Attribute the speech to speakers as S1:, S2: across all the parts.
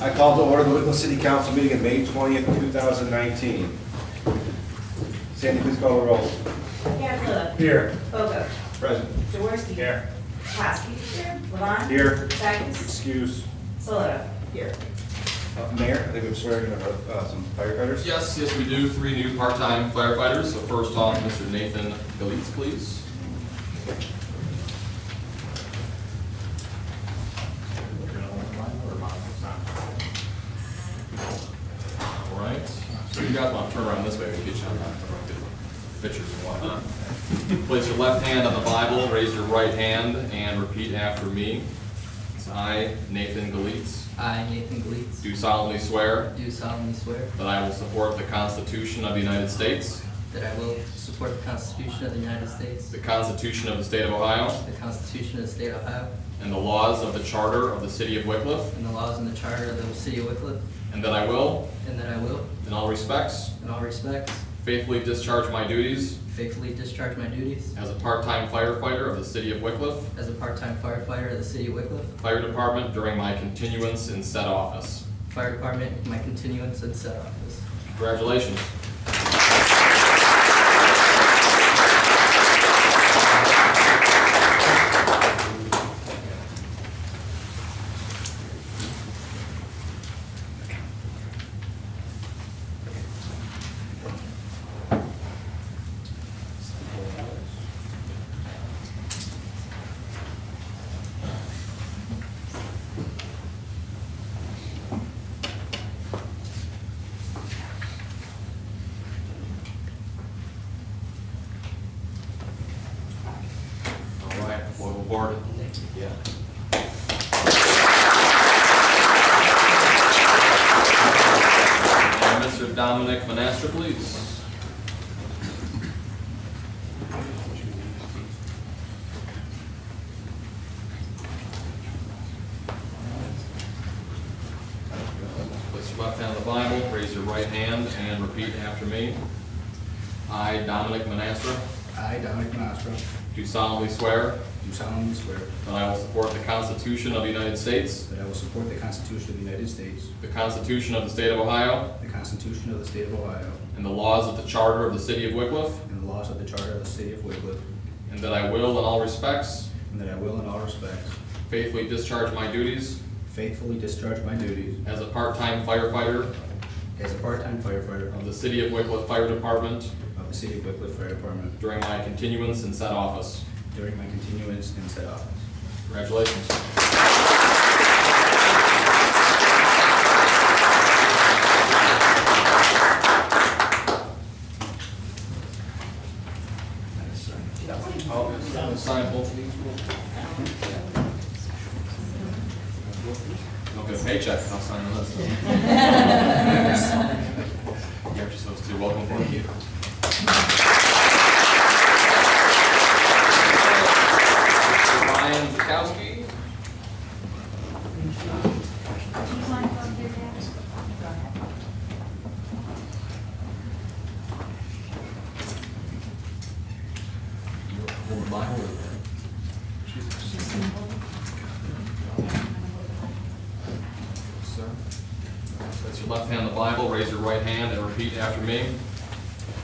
S1: I called to order the Whitman City Council meeting of May 20th, 2019. Sandy, please call the roll.
S2: Candela.
S3: Here.
S2: Bogo.
S1: Present.
S2: Jaworski.
S3: Here.
S2: Kowski. Here. Levon.
S1: Here.
S2: Sackus.
S1: Excuse.
S2: Solera. Here.
S1: Uh, Mayor, I think we're swearing in uh, some firefighters.
S4: Yes, yes, we do. Three new part-time firefighters. So first off, Mr. Nathan Galitz, please. All right. So you guys want to turn around this way, we can get you on the pictures and whatnot. Place your left hand on the Bible, raise your right hand, and repeat after me. I, Nathan Galitz,
S5: I, Nathan Gleitz,
S4: do solemnly swear
S5: do solemnly swear
S4: that I will support the Constitution of the United States,
S5: that I will support the Constitution of the United States,
S4: the Constitution of the State of Ohio,
S5: the Constitution of the State of Ohio,
S4: and the laws of the Charter of the City of Wickliffe,
S5: and the laws and the charter of the City of Wickliffe,
S4: and that I will,
S5: and that I will,
S4: in all respects,
S5: in all respects,
S4: faithfully discharge my duties
S5: faithfully discharge my duties
S4: as a part-time firefighter of the City of Wickliffe
S5: as a part-time firefighter of the City of Wickliffe
S4: Fire Department during my continuance in said office.
S5: Fire Department, my continuance in said office.
S4: Congratulations. All right, welcome aboard. Yeah. And Mr. Dominic Monastra, please. Place your left hand on the Bible, raise your right hand, and repeat after me. I, Dominic Monastra,
S6: I, Dominic Monastro,
S4: do solemnly swear
S6: do solemnly swear
S4: That I will support the Constitution of the United States,
S6: that I will support the Constitution of the United States,
S4: the Constitution of the State of Ohio,
S6: the Constitution of the State of Ohio,
S4: and the laws of the Charter of the City of Wickliffe,
S6: and the laws of the Charter of the City of Wickliffe,
S4: and that I will, in all respects,
S6: and that I will in all respects
S4: faithfully discharge my duties
S6: faithfully discharge my duties
S4: as a part-time firefighter
S6: as a part-time firefighter
S4: of the City of Wickliffe Fire Department
S6: of the City of Wickliffe Fire Department
S4: during my continuance in said office.
S6: during my continuance in said office.
S4: Congratulations. Oh, Sign both of these real quick. Don't get a paycheck, I'll sign the list. You're just supposed to, welcome for you. Ryan Zakowski. Sir, Place your left hand on the Bible, raise your right hand, and repeat after me.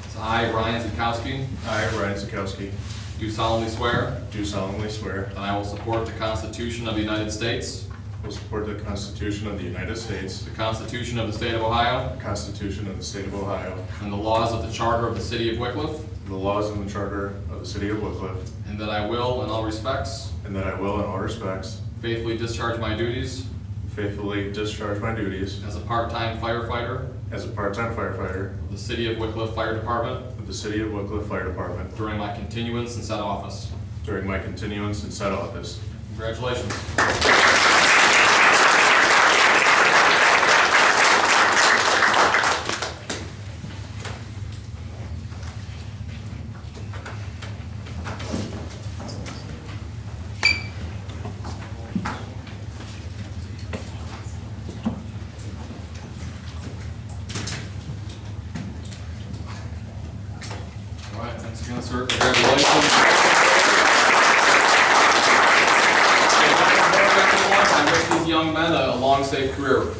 S4: It's I, Ryan Zakowski,
S7: I, Ryan Zakowski,
S4: do solemnly swear
S7: do solemnly swear
S4: that I will support the Constitution of the United States,
S7: will support the Constitution of the United States,
S4: the Constitution of the State of Ohio,
S7: the Constitution of the State of Ohio,
S4: and the laws of the Charter of the City of Wickliffe,
S7: the laws and the Charter of the City of Wickliffe,
S4: and that I will, in all respects,
S7: and that I will in all respects
S4: faithfully discharge my duties
S7: faithfully discharge my duties
S4: as a part-time firefighter
S7: as a part-time firefighter
S4: of the City of Wickliffe Fire Department
S7: of the City of Wickliffe Fire Department
S4: during my continuance in said office.
S7: during my continuance in said office.
S4: Congratulations. All right, thanks again, sir. Congratulations. I wish these young men a long, safe career.